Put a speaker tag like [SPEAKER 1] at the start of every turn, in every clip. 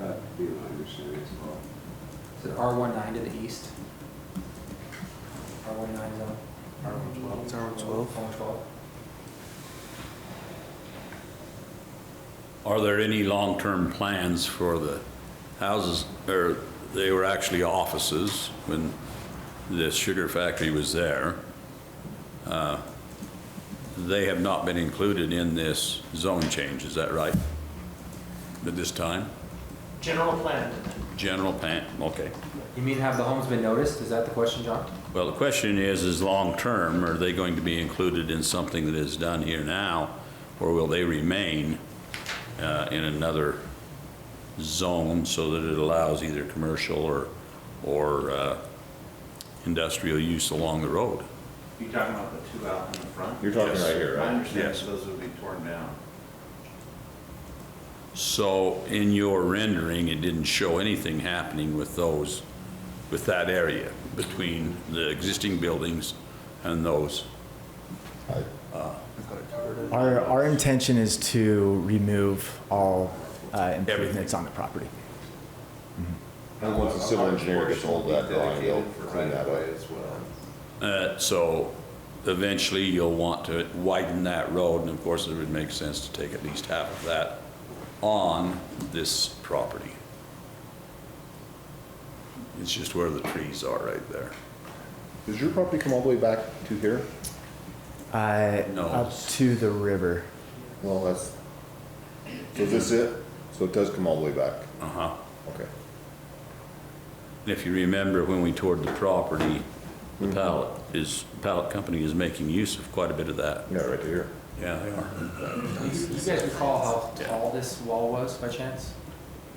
[SPEAKER 1] would be my understanding as well.
[SPEAKER 2] Is it R one nine to the east? R one nine zone? R one twelve?
[SPEAKER 3] It's R112.
[SPEAKER 2] R one twelve.
[SPEAKER 4] Are there any long-term plans for the houses, or they were actually offices when the sugar factory was there? Uh, They have not been included in this zone change, is that right? At this time?
[SPEAKER 5] General plan.
[SPEAKER 4] General plan, okay.
[SPEAKER 2] You mean have the homes been noticed? Is that the question, John?
[SPEAKER 4] Well, the question is, is long-term, are they going to be included in something that is done here now? Or will they remain uh, in another zone so that it allows either commercial or, or uh, industrial use along the road?
[SPEAKER 6] You talking about the two out in the front?
[SPEAKER 7] You're talking right here,
[SPEAKER 6] I
[SPEAKER 7] right?
[SPEAKER 6] understand
[SPEAKER 4] Yes.
[SPEAKER 6] those would be torn down.
[SPEAKER 4] So in your rendering, it didn't show anything happening with those, with that area between the existing buildings and those.
[SPEAKER 8] Our, our intention is to remove all uh, improvements on the property.
[SPEAKER 7] And once the civil engineer gets hold of that drawing, they'll clean that up.
[SPEAKER 6] As well.
[SPEAKER 4] Uh, So eventually, you'll want to widen that road, and of course, it would make sense to take at least half of that on this property. It's just where the trees are right there.
[SPEAKER 7] Does your property come all the way back to here?
[SPEAKER 8] Uh,
[SPEAKER 4] No.
[SPEAKER 8] Up to the river.
[SPEAKER 7] Well, that's, so is this it? So it does come all the way back?
[SPEAKER 4] Uh-huh.
[SPEAKER 7] Okay.
[SPEAKER 4] And If you remember, when we toured the property, the pallet is, pallet company is making use of quite a bit of that.
[SPEAKER 7] Yeah, right to here.
[SPEAKER 4] Yeah, they are.
[SPEAKER 2] Do you you guys recall how tall this wall was by chance?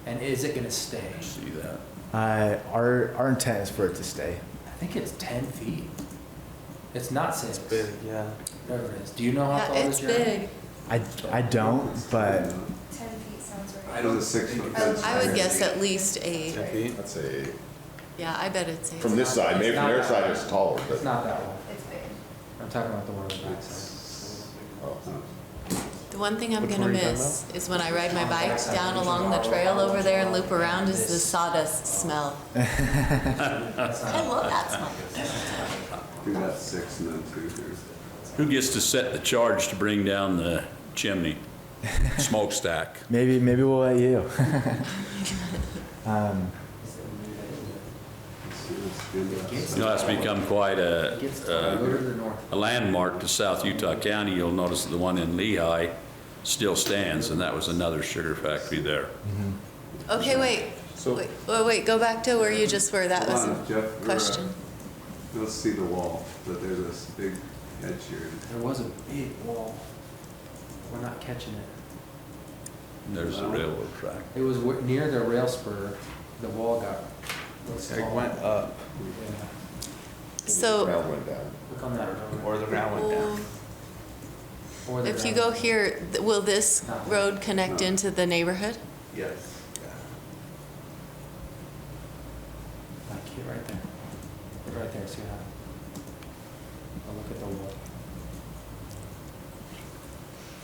[SPEAKER 2] And is it gonna stay?
[SPEAKER 4] See that?
[SPEAKER 8] Uh, Our, our intent is for it to stay.
[SPEAKER 2] I think it's ten feet. It's not six.
[SPEAKER 3] Big, yeah.
[SPEAKER 2] Whatever it is. Do you know how
[SPEAKER 9] Yeah,
[SPEAKER 2] tall
[SPEAKER 9] it's
[SPEAKER 2] this is?
[SPEAKER 9] big.
[SPEAKER 8] I, I don't, but
[SPEAKER 10] 10 feet sounds right.
[SPEAKER 1] I know the six foot fence.
[SPEAKER 9] Um, I would guess at least eight.
[SPEAKER 3] 10 feet?
[SPEAKER 7] That's a,
[SPEAKER 9] Yeah, I bet it's eight.
[SPEAKER 7] from this side, maybe from their side it's taller,
[SPEAKER 2] It's
[SPEAKER 7] but,
[SPEAKER 2] not that one.
[SPEAKER 10] It's big.
[SPEAKER 2] I'm talking about the one on the backside.
[SPEAKER 7] oh,
[SPEAKER 9] The one thing I'm
[SPEAKER 3] Which
[SPEAKER 9] gonna
[SPEAKER 3] one are you talking
[SPEAKER 9] miss is when I ride my
[SPEAKER 2] On the
[SPEAKER 9] bike
[SPEAKER 2] backside,
[SPEAKER 9] down
[SPEAKER 2] which is
[SPEAKER 9] along the
[SPEAKER 2] our-
[SPEAKER 9] trail over there and loop around is the
[SPEAKER 2] This-
[SPEAKER 9] sawdust smell.
[SPEAKER 2] That's not-
[SPEAKER 9] I love that smell.
[SPEAKER 1] Do that six and then two here.
[SPEAKER 4] Who gets to set the charge to bring down the chimney? Smokestack.
[SPEAKER 8] maybe, maybe we'll let you. Um,
[SPEAKER 1] Let's do this, do that.
[SPEAKER 4] You know, that's become quite a, uh,
[SPEAKER 2] It gets taller. Go to
[SPEAKER 4] a-
[SPEAKER 2] the north.
[SPEAKER 4] a landmark to South Utah County. You'll notice that the one in Lehigh still stands, and that was another sugar factory there.
[SPEAKER 9] Okay, wait,
[SPEAKER 7] So-
[SPEAKER 9] wait, wait, wait, go back to where you just were, that was
[SPEAKER 1] Hold on, Jeff,
[SPEAKER 9] a
[SPEAKER 1] we're, uh,
[SPEAKER 9] question.
[SPEAKER 1] You'll see the wall, but there's this big hedge here.
[SPEAKER 2] There was a big wall. We're not catching it.
[SPEAKER 4] There's the railroad track.
[SPEAKER 2] It was wh- near the rail spur, the wall got.
[SPEAKER 3] It went up,
[SPEAKER 2] Yeah.
[SPEAKER 7] the
[SPEAKER 9] So,
[SPEAKER 7] ground went down.
[SPEAKER 2] Look on that road.
[SPEAKER 3] or the ground went down.
[SPEAKER 2] Or the
[SPEAKER 9] if you go
[SPEAKER 2] ground.
[SPEAKER 9] here, th- will this road connect into the neighborhood?
[SPEAKER 6] Yes.
[SPEAKER 2] Like here, right there. Look Right there, see how? Oh, look at the wall.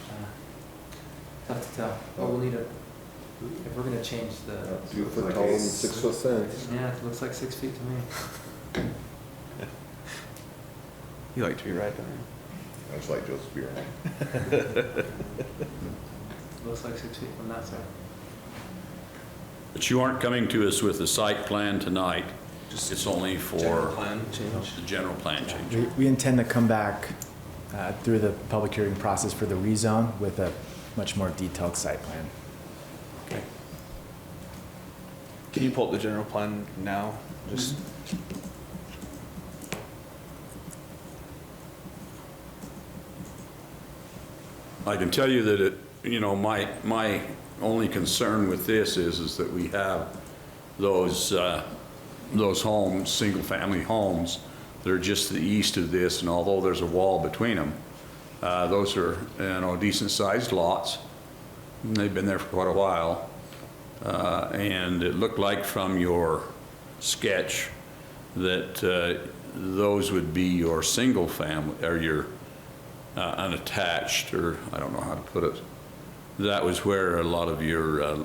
[SPEAKER 2] Uh, Tough to tell, but we'll need a, if we're gonna change the,
[SPEAKER 7] Two foot tall and six foot thin.
[SPEAKER 2] yeah, it looks like six feet to me.
[SPEAKER 3] You like to be right there.
[SPEAKER 7] That's like Joseph Beer.
[SPEAKER 2] Looks like six feet from that side.
[SPEAKER 4] But you aren't coming to us with a site plan tonight. It's only
[SPEAKER 3] General
[SPEAKER 4] for
[SPEAKER 3] plan change.
[SPEAKER 4] the general plan change.
[SPEAKER 8] We, we intend to come back uh, through the public hearing process for the rezone with a much more detailed site plan.
[SPEAKER 3] Can you pull up the general plan now? Just
[SPEAKER 4] I can tell you that it, you know, my, my only concern with this is, is that we have those, uh, those homes, single-family homes, that are just to the east of this, and although there's a wall between them, uh, those are, you know, decent-sized lots, and they've been there for quite a while. Uh, And it looked like from your sketch that uh, those would be your single-family, or your uh, unattached, or I don't know how to put it. That was where a lot of your uh,